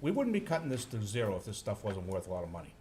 We wouldn't be cutting this to zero if this stuff wasn't worth a lot of money.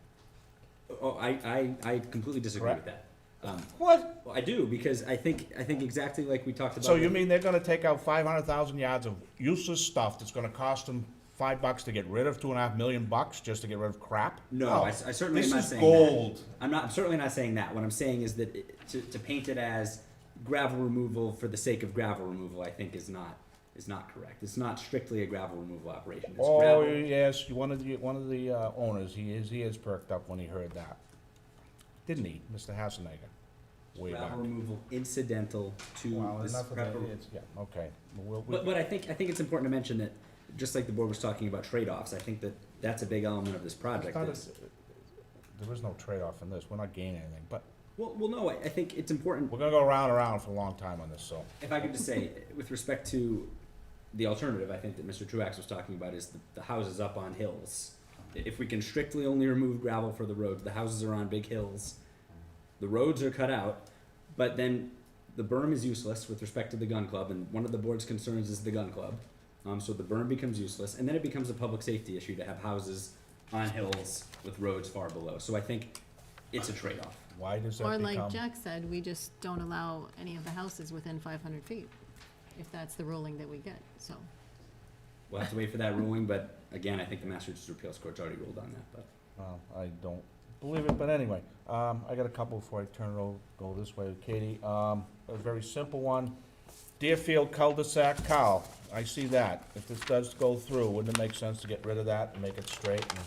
Oh, I, I, I completely disagree with that. Um, What? well, I do, because I think, I think exactly like we talked about. So you with- mean they're gonna take out five hundred thousand yards of useless stuff that's gonna cost them five bucks to get rid of, two and a half million bucks just to get rid of crap? No, I, s- I certainly This am not is saying gold. that. I'm not. I'm certainly not saying that. What I'm saying is that it, to, to paint it as gravel removal for the sake of gravel removal, I think is not is not correct. It's not strictly a gravel removal operation. It's Oh, gravel. yes, one of the, one of the uh, owners, he is, he is perked up when he heard that. Didn't he, Mr. Hassenegger? Way back. Gravel removal incidental to Well, this enough of that, gravel- it's, yeah, okay. We'll- we- But, but I think I think it's important to mention that, just like the board was talking about trade-offs, I think that that's a big element of this it's project. not a- is- There is no trade-off in this, we're not gaining anything, but well, well, no, I, I think it's important. we're gonna go round and round for a long time on this, so. If I could just say, with respect to the alternative, I think that Mr. Truax was talking about is the, the houses up on hills. If we can strictly only remove gravel for the roads, the houses are on big hills, the roads are cut out, but then the berm is useless with respect to the gun club, and one of the board's concerns is the gun club. Um, so the berm becomes useless, and then it becomes a public safety issue to have houses on hills with roads far below. So I think it's a trade-off. Why does Or that like become? Jack said, we just don't allow any of the houses within five hundred feet, if that's the ruling that we get, so. We'll have to wait for that ruling, but again, I think the Massachusetts Appeals Court's already ruled on that, but. Well, I don't believe it, but anyway, um, I got a couple before I turn it over, go this way, Katie. Um, a very simple one, Deerfield cul-de-sac, Carl, I see that. If this does go through, wouldn't it make sense to get rid of that and make it straight and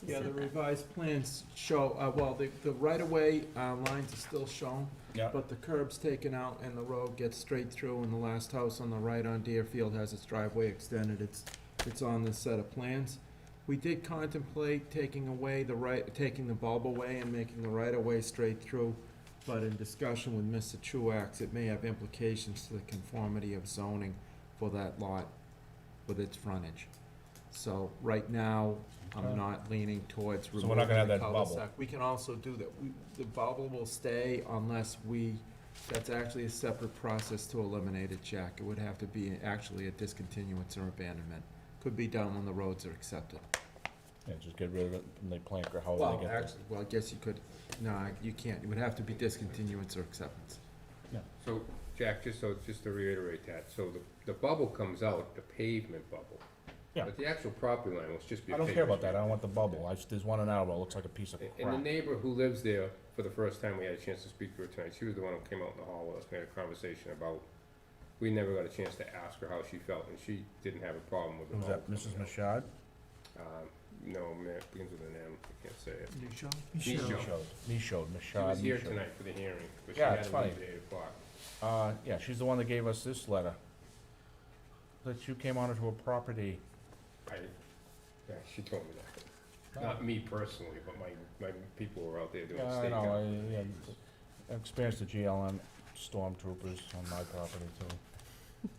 she Yeah, the said that. revised plans show, uh, well, the, the right-of-way, uh, lines are still shown, Yeah, but the curb's taken out and the road gets straight through and the last house on the right on Deerfield has its driveway extended, it's, it's on this set of plans. We did contemplate taking away the right, taking the bulb away and making the right-of-way straight through, but in discussion with Mr. Truax, it may have implications to the conformity of zoning for that lot with its frontage. So, right now, Okay. I'm not leaning towards So we're not gonna have that removing the bubble. cul-de-sac. We can also do that. We- The bubble will stay unless we, that's actually a separate process to eliminate it, Jack. It would have to be actually a discontinuance or abandonment. Could be done when the roads are accepted. yeah, just get rid of it and they plank or however Well, Oh, they get actually, well, I guess you could, no, you can't. It would have to be discontinuance or acceptance. So, Jack, just so, just to reiterate that, so the, the bubble comes out, the pavement bubble. Yeah. But the actual property line will just be. there. I don't care about that, I don't want the bubble, I, just- there's one in Attleboro, it looks like a piece of And- And the crap. neighbor who lives there, for the first time, we had a chance to speak to her tonight, she was the one who came out in the hall with us, we had a conversation about, we never got a chance to ask her how she felt, and she didn't have a problem with the Who's bubble. that, Mrs. coming out. Machad? Um, No, ma- it begins with an M, I can't say it. You sure? Michaud. Michaud, She Machad, was here Michaud. tonight for the hearing, but she Yeah, had it's to leave funny. at eight o'clock. Uh, yeah, she's the one that gave us this letter. That you came onto a property. I, yeah, she told me that. Not me personally, but my, my people were out there doing Yeah, I stakeout. know, I, yeah, I experienced the GLM stormtroopers on my property too.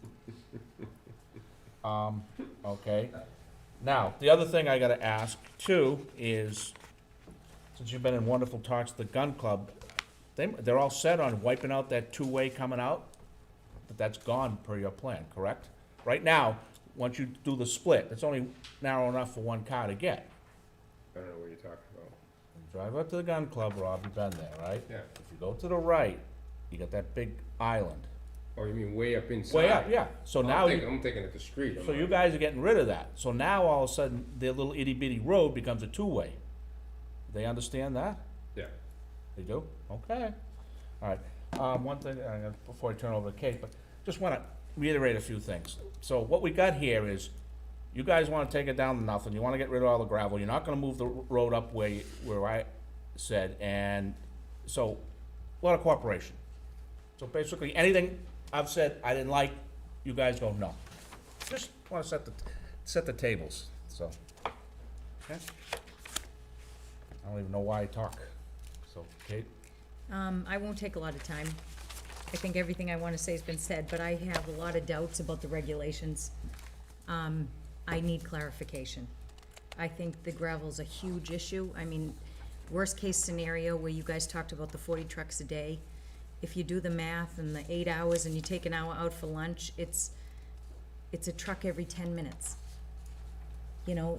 Um, okay, now, the other thing I gotta ask too is, since you've been in wonderful talks, the gun club, they, they're all set on wiping out that two-way coming out? But that's gone per your plan, correct? Right now, once you do the split, it's only narrow enough for one car to get. I don't know what you're talking about. Drive up to the gun club, Rob, you've been there, right? Yeah. If you go to the right, you got that big island. Oh, you mean way up inside? Way up, yeah. So I'm now, thinking- you- I'm thinking at the street. I'm so you like- guys are getting rid of that. So now all of a sudden, their little itty bitty road becomes a two-way. They understand that? Yeah. They do? Okay. All right. Um, one thing, uh, before I turn over to Kate, but just wanna reiterate a few things. So what we got here is, you guys wanna take it down to nothing, you wanna get rid of all the gravel, you're not gonna move the r- road up where, you- where I said, and so, a lot of cooperation. So basically, anything I've said I didn't like, you guys go, no. Just wanna set the, set the tables, so. Okay? I don't even know why I talk, so, Kate? Um, I won't take a lot of time. I think everything I want to say has been said, but I have a lot of doubts about the regulations. Um, I need clarification. I think the gravel's a huge issue. I mean, worst-case scenario where you guys talked about the forty trucks a day, if you do the math and the eight hours and you take an hour out for lunch, it's, it's a truck every ten minutes. You know,